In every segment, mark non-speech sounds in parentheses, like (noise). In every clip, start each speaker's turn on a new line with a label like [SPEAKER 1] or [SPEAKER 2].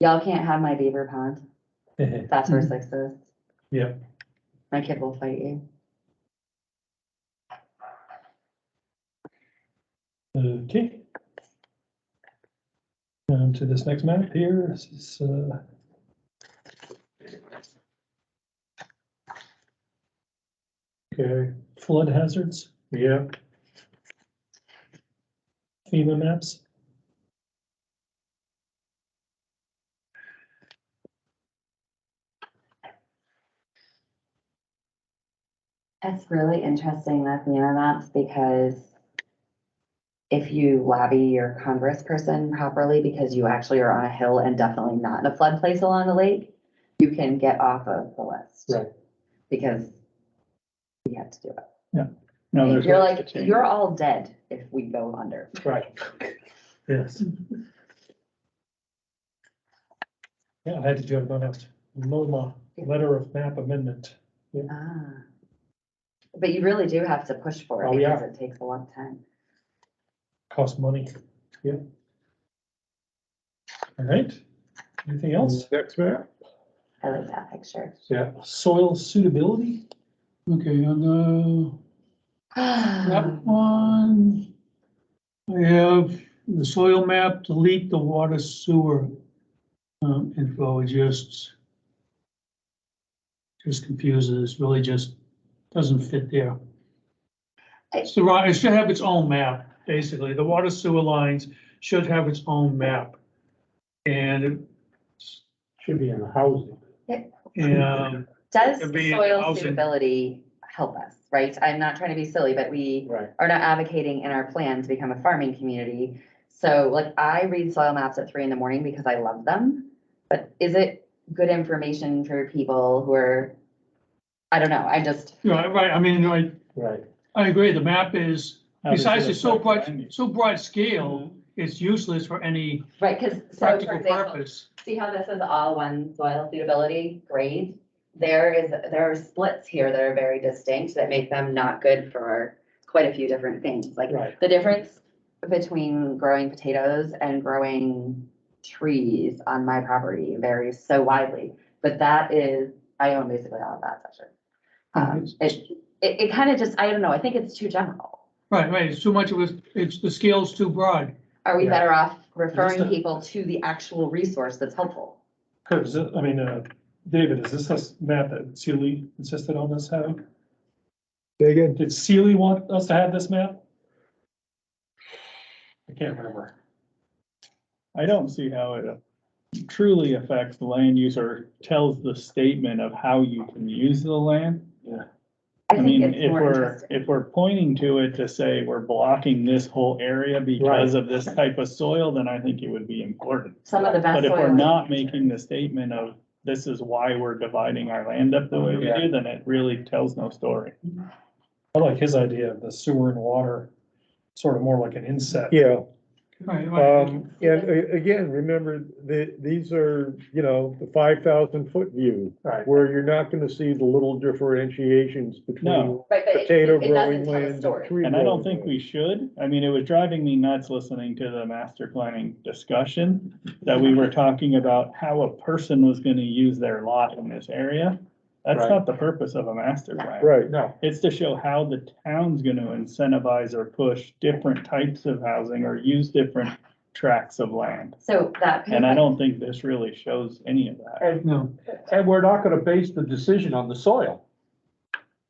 [SPEAKER 1] Y'all can't have my beaver pond. That's where
[SPEAKER 2] Mhm.
[SPEAKER 3] Mm.
[SPEAKER 1] six is.
[SPEAKER 2] Yep.
[SPEAKER 1] My kid will fight you.
[SPEAKER 2] Okay. On to this next map here, this is, uh. Okay, flood hazards. Yeah. FEMA maps.
[SPEAKER 1] That's really interesting, that FEMA maps, because if you lobby your congressperson properly, because you actually are on a hill and definitely not in a flood place along the lake, you can get off of the list.
[SPEAKER 2] Right.
[SPEAKER 1] Because we have to do it.
[SPEAKER 3] No, there's
[SPEAKER 1] You're
[SPEAKER 3] lots to
[SPEAKER 1] like,
[SPEAKER 3] change.
[SPEAKER 1] you're all dead if we go under.
[SPEAKER 2] Right. Yes. Yeah, I had to do a last LOMA, letter of map amendment.
[SPEAKER 1] Ah. But you really do have to push for
[SPEAKER 2] Oh,
[SPEAKER 1] it
[SPEAKER 2] we
[SPEAKER 1] because
[SPEAKER 2] are.
[SPEAKER 1] it takes a long time.
[SPEAKER 2] cost money, yeah. All right, anything else?
[SPEAKER 3] Next map.
[SPEAKER 1] I like that picture.
[SPEAKER 2] Yeah. Soil suitability,
[SPEAKER 3] Okay, on the
[SPEAKER 1] (sighs)
[SPEAKER 3] That one, I have the soil map, delete the water sewer um, info, it just just confuses, really just doesn't fit there. It's the right, it should have its own map, basically. The water sewer lines should have its own map. And,
[SPEAKER 4] Should be in the housing.
[SPEAKER 3] and
[SPEAKER 1] Does
[SPEAKER 3] It could be
[SPEAKER 1] soil
[SPEAKER 3] housing.
[SPEAKER 1] suitability help us, right? I'm not trying to be silly, but we
[SPEAKER 4] Right.
[SPEAKER 1] are not advocating in our plan to become a farming community. So like I read soil maps at three in the morning because I love them. But is it good information for people who are, I don't know, I just,
[SPEAKER 3] you know, right, I mean, I,
[SPEAKER 4] Right.
[SPEAKER 3] I agree, the map is,
[SPEAKER 4] How does it
[SPEAKER 3] besides it's so
[SPEAKER 4] affect
[SPEAKER 3] broad,
[SPEAKER 4] land use?
[SPEAKER 3] so broad scale, it's useless for any
[SPEAKER 1] right, because so for
[SPEAKER 3] practical
[SPEAKER 1] example,
[SPEAKER 3] purpose.
[SPEAKER 1] see how this is all one soil suitability grade? There is, there are splits here that are very distinct that make them not good for quite a few different things, like
[SPEAKER 4] Right,
[SPEAKER 1] the difference between growing potatoes and growing trees on my property varies so widely, but that is, I own basically all of that section. Um, it, it, it kind of just, I don't know, I think it's too general.
[SPEAKER 3] Right, right, it's too much of a, it's, the scale's too broad.
[SPEAKER 1] Are we
[SPEAKER 4] Yeah.
[SPEAKER 1] better off referring
[SPEAKER 2] Understood.
[SPEAKER 1] people to the actual resource that's helpful?
[SPEAKER 2] Kurt, is it- I mean, uh, David, is this this map that Sealy insisted on us having?
[SPEAKER 5] Say again,
[SPEAKER 2] Did Sealy want us to have this map? I can't remember.
[SPEAKER 5] I don't see how it truly affects the land use or tells the statement of how you can use the land.
[SPEAKER 1] I
[SPEAKER 5] I
[SPEAKER 1] think
[SPEAKER 5] mean,
[SPEAKER 1] it's
[SPEAKER 5] if
[SPEAKER 1] more
[SPEAKER 5] we're,
[SPEAKER 1] interesting.
[SPEAKER 5] if we're pointing to it to say we're blocking this whole area because of this type of soil, then I think it would be important.
[SPEAKER 1] Some of the best
[SPEAKER 5] But if we're
[SPEAKER 1] soil-
[SPEAKER 5] not making the statement of this is why we're dividing our land up the way we do, then it really tells no story.
[SPEAKER 2] I like his idea of the sewer and water, sort of more like an inset.
[SPEAKER 6] Yeah,
[SPEAKER 3] Right, right.
[SPEAKER 6] um, and a- again, remember that these are, you know, the five thousand foot view.
[SPEAKER 2] Right.
[SPEAKER 6] Where you're not gonna see the little differentiations between
[SPEAKER 5] No.
[SPEAKER 1] Right, but it-
[SPEAKER 6] potato
[SPEAKER 1] it doesn't
[SPEAKER 6] growing
[SPEAKER 1] tell a
[SPEAKER 6] land and
[SPEAKER 1] story.
[SPEAKER 6] tree growing.
[SPEAKER 5] And I don't think
[SPEAKER 6] land.
[SPEAKER 5] we should. I mean, it was driving me nuts listening to the master planning discussion that we were talking about how a person was gonna use their lot in this area. That's
[SPEAKER 2] Right.
[SPEAKER 5] not the purpose of a master plan.
[SPEAKER 6] Right,
[SPEAKER 2] No,
[SPEAKER 5] It's to show how the town's gonna incentivize or push different types of housing or use different tracts of land.
[SPEAKER 1] So that.
[SPEAKER 5] And I don't think this really shows any of that.
[SPEAKER 3] No,
[SPEAKER 4] and we're not gonna base the decision on the soil.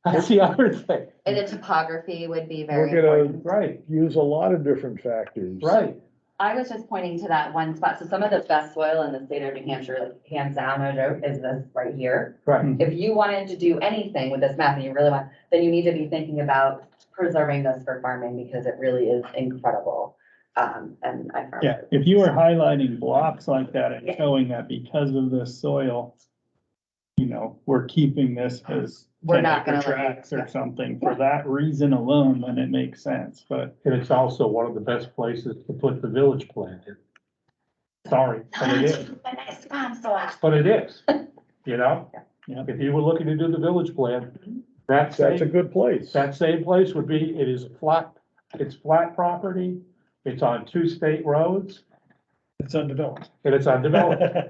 [SPEAKER 4] That's the other thing,
[SPEAKER 1] And the topography would be
[SPEAKER 6] we're
[SPEAKER 1] very important.
[SPEAKER 6] gonna
[SPEAKER 4] right,
[SPEAKER 6] use a lot of different factors.
[SPEAKER 4] right,
[SPEAKER 1] I was just pointing to that one spot. So some of the best soil in the state of New Hampshire, like hands down, no joke, is this right here.
[SPEAKER 4] right,
[SPEAKER 1] If you wanted to do anything with this map and you really want, then you need to be thinking about preserving this for farming because it really is incredible. Um, and I. found
[SPEAKER 5] Yeah,
[SPEAKER 1] it.
[SPEAKER 5] if you were highlighting blocks like that and showing that because of the soil, you know, we're keeping this as
[SPEAKER 1] We're
[SPEAKER 5] 10
[SPEAKER 1] not
[SPEAKER 5] acre
[SPEAKER 1] gonna let you-
[SPEAKER 5] tracts
[SPEAKER 1] yeah.
[SPEAKER 5] or something, for that reason alone, then it makes sense, but
[SPEAKER 4] and it's also one of the best places to put the village plan in. Sorry, but it is,
[SPEAKER 1] My nice farm soil.
[SPEAKER 4] but it
[SPEAKER 1] (laughs)
[SPEAKER 4] is, you know?
[SPEAKER 5] Yeah.
[SPEAKER 4] If you were looking to do the village
[SPEAKER 1] Mm-hmm.
[SPEAKER 4] plan, that's.
[SPEAKER 6] That's a good place.
[SPEAKER 4] That same place would be, it is flat, it's flat property, it's on two state roads,
[SPEAKER 2] it's undeveloped.
[SPEAKER 4] and it's undeveloped.